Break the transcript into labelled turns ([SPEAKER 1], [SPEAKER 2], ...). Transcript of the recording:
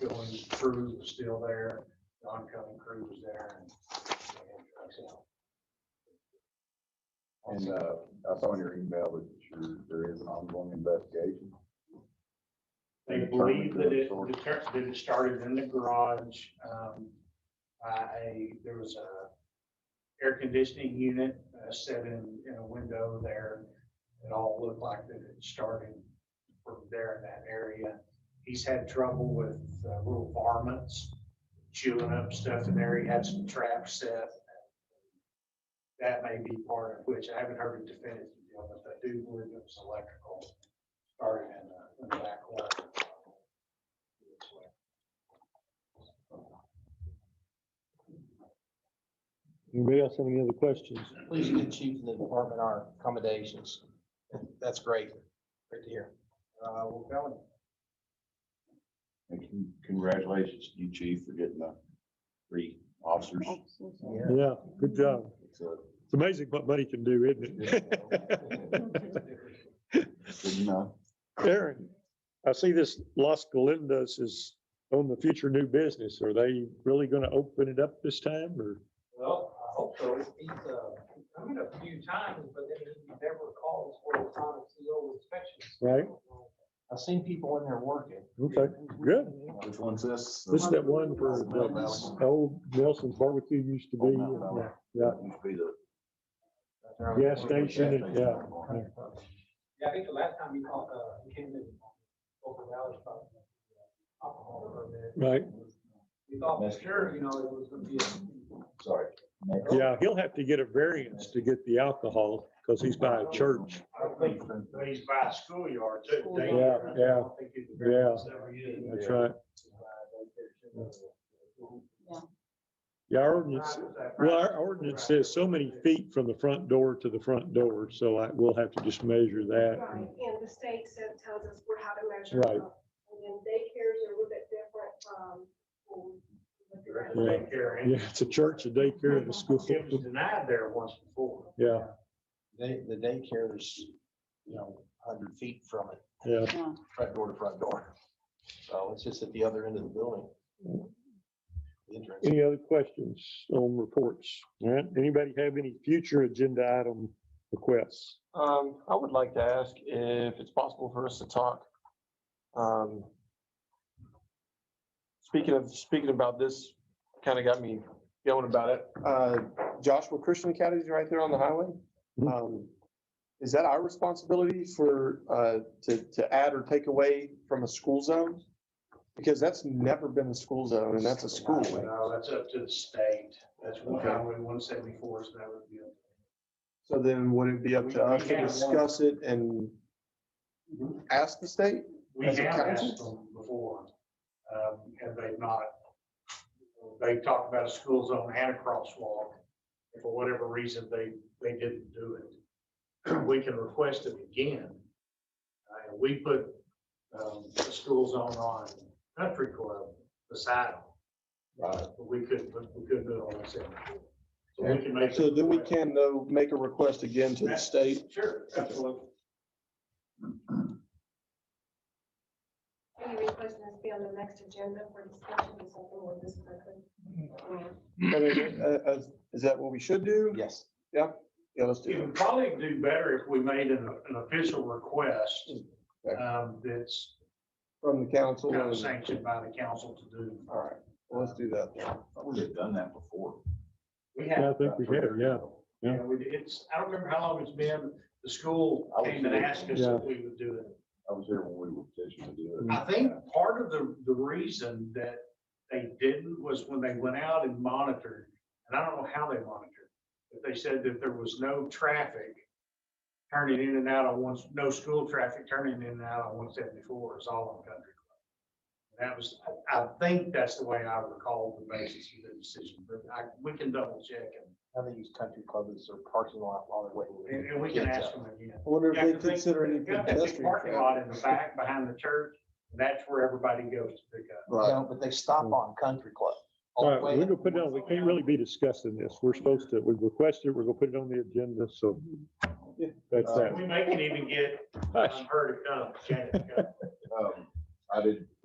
[SPEAKER 1] Dylan Cruz was still there, Don Cunning Cruz was there. and-
[SPEAKER 2] And, uh, I saw in your email that you're, there is an ongoing investigation.
[SPEAKER 1] They believe that it, that it started in the garage, um, by a, there was a air conditioning unit uh, set in, in a window there. It all looked like that it started from there in that area. He's had trouble with uh, little varmints chewing up stuff in there. He had some traps set. That may be part of which, I haven't heard it definitively, but I do believe it was electrical started in the- in the back corner.
[SPEAKER 3] Anybody else have any other questions?
[SPEAKER 4] Please give chief of the department our accommodations. That's great. Great to hear.
[SPEAKER 1] Uh, well, Kelly,
[SPEAKER 2] And con- congratulations to you, chief, for getting the three officers.
[SPEAKER 3] Yeah, good job.
[SPEAKER 2] It's a-
[SPEAKER 3] It's amazing what money can do, isn't it?
[SPEAKER 2] uh, Good enough.
[SPEAKER 3] Aaron, I see this Los Galindas is on the future new business. Are they really gonna open it up this time or?
[SPEAKER 4] Well, I hope so. He's, uh, come in a few times, but then he never calls for a final CO inspection.
[SPEAKER 3] Right.
[SPEAKER 4] I've seen people in there working.
[SPEAKER 3] Okay, good.
[SPEAKER 2] Which one's this?
[SPEAKER 3] This is that one where the old Nelson's barbecue used to be. Yeah, Yeah,
[SPEAKER 2] Must be the-
[SPEAKER 3] gas station, and- yeah.
[SPEAKER 4] Yeah, I think the last time he called, uh, he came in over Valley about uh, alcohol or a bit.
[SPEAKER 3] Right,
[SPEAKER 4] We thought for sure, you know, it was gonna be a
[SPEAKER 2] Sorry. Next.
[SPEAKER 3] yeah, he'll have to get a variance to get the alcohol because he's by a church.
[SPEAKER 1] I don't think he's by a schoolyard too.
[SPEAKER 3] Yeah, yeah, yeah. That's right. Yeah, our ordinance, well, our ordinance says so many feet from the front door to the front door, so I, we'll have to just measure that.
[SPEAKER 5] Right, and the state said, tells us where how to measure.
[SPEAKER 3] Right.
[SPEAKER 5] stuff. And then daycares are a little bit different um, from. schools.
[SPEAKER 3] Yeah. Yeah, it's a church, a daycare, and a school.
[SPEAKER 1] It was denied there once before.
[SPEAKER 3] Yeah,
[SPEAKER 4] They, the daycare is, you know, hundred feet from it,
[SPEAKER 3] yeah.
[SPEAKER 4] front door to front door. So it's just at the other end of the building. Interesting.
[SPEAKER 3] Any other questions on reports? All right, anybody have any future agenda item requests?
[SPEAKER 6] Um, I would like to ask if it's possible for us to talk. Um. Speaking of, speaking about this, kind of got me going about it. Uh, Joshua Christian Academy is right there on the highway.
[SPEAKER 3] Mhm.
[SPEAKER 6] Um, is that our responsibility for, uh, to, to add or take away from a school zone? Because that's never been a school zone and that's a school.
[SPEAKER 1] No, that's up to the state. That's one highway one seventy-four, so that would be.
[SPEAKER 6] So then would it be up to us to discuss it and Mm-hmm. ask the state?
[SPEAKER 1] We
[SPEAKER 6] As
[SPEAKER 1] have
[SPEAKER 6] a
[SPEAKER 1] asked
[SPEAKER 6] council?
[SPEAKER 1] them before, um, and they've not. They talked about a school zone and a crosswalk. and For whatever reason, they, they didn't do it. We can request it again. Uh, we put, um, a school zone on Country Club beside them.
[SPEAKER 2] Right.
[SPEAKER 1] But we couldn't, but we couldn't do it on the same. So we can make.
[SPEAKER 6] So then we
[SPEAKER 1] the-
[SPEAKER 6] can though make a request again to the state.
[SPEAKER 1] Sure, absolutely.
[SPEAKER 5] Any request that's be on the next agenda for discussion or something with this person?
[SPEAKER 6] I mean, uh, uh, is that what we should do?
[SPEAKER 4] Yes.
[SPEAKER 6] Yeah, let's
[SPEAKER 1] It
[SPEAKER 6] do
[SPEAKER 1] would probably do better if we made an, an official request, um, that's
[SPEAKER 6] it from the council.
[SPEAKER 1] kind
[SPEAKER 6] and-
[SPEAKER 1] of sanctioned by the council to do.
[SPEAKER 6] All right, well, let's do that.
[SPEAKER 2] I thought we had done that before.
[SPEAKER 1] We
[SPEAKER 3] Yeah, I
[SPEAKER 1] have,
[SPEAKER 3] think we have, yeah. yeah.
[SPEAKER 1] yeah, we, it's, I don't remember how long it's been, the school
[SPEAKER 2] I was
[SPEAKER 1] came and
[SPEAKER 2] here.
[SPEAKER 1] asked us
[SPEAKER 3] Yeah.
[SPEAKER 1] if we would do it.
[SPEAKER 2] I was here when we were petitioning to do it.
[SPEAKER 1] I think part of the, the reason that they didn't was when they went out and monitored, and I don't know how they monitored. But they said that there was no traffic turning in and out on one, no school traffic turning in and out on one seventy-four is all on Country Club. And That was, I- I think that's the way I recall the basis of the decision, but I, we can double check
[SPEAKER 4] Now they use country clubs as their parking lot while they're
[SPEAKER 1] and,
[SPEAKER 4] waiting.
[SPEAKER 1] and- and we can
[SPEAKER 4] Kids
[SPEAKER 1] ask
[SPEAKER 4] up.
[SPEAKER 1] them again.
[SPEAKER 6] I wonder
[SPEAKER 1] Yeah,
[SPEAKER 6] if
[SPEAKER 1] 'cause
[SPEAKER 6] they consider any
[SPEAKER 1] they've got that big
[SPEAKER 6] pedestrian
[SPEAKER 1] Parking
[SPEAKER 6] traffic.
[SPEAKER 1] lot in the back, behind the church, that's where everybody goes to pick up.
[SPEAKER 6] Right,
[SPEAKER 4] No, but they stop on country club.
[SPEAKER 3] All right, we're gonna put it on, we can't really be discussing this. We're supposed to, we requested, we're gonna put it on the agenda, so that's that.
[SPEAKER 1] We may can even get, um,
[SPEAKER 3] Hush.
[SPEAKER 1] I'm heard it come, Janet come.
[SPEAKER 2] Um, I did